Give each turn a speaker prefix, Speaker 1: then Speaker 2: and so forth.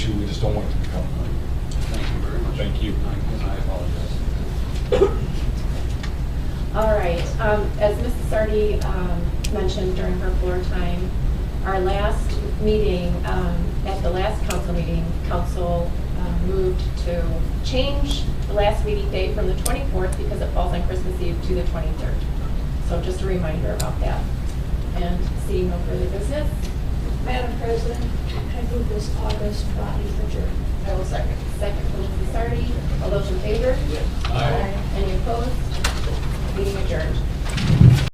Speaker 1: just don't want it to become.
Speaker 2: Thank you very much.
Speaker 1: Thank you.
Speaker 2: I I apologize.
Speaker 3: All right, um, as Mrs. Sardi, um, mentioned during her floor time, our last meeting, um, at the last council meeting, council, um, moved to change the last meeting day from the twenty-fourth because it falls on Christmas Eve to the twenty-third. So just a reminder about that. And seeing no further business,
Speaker 4: Madam President, I move this August body adjourned.
Speaker 3: I will second. Second from Mrs. Sardi, all those in favor? Any opposed? Meeting adjourned.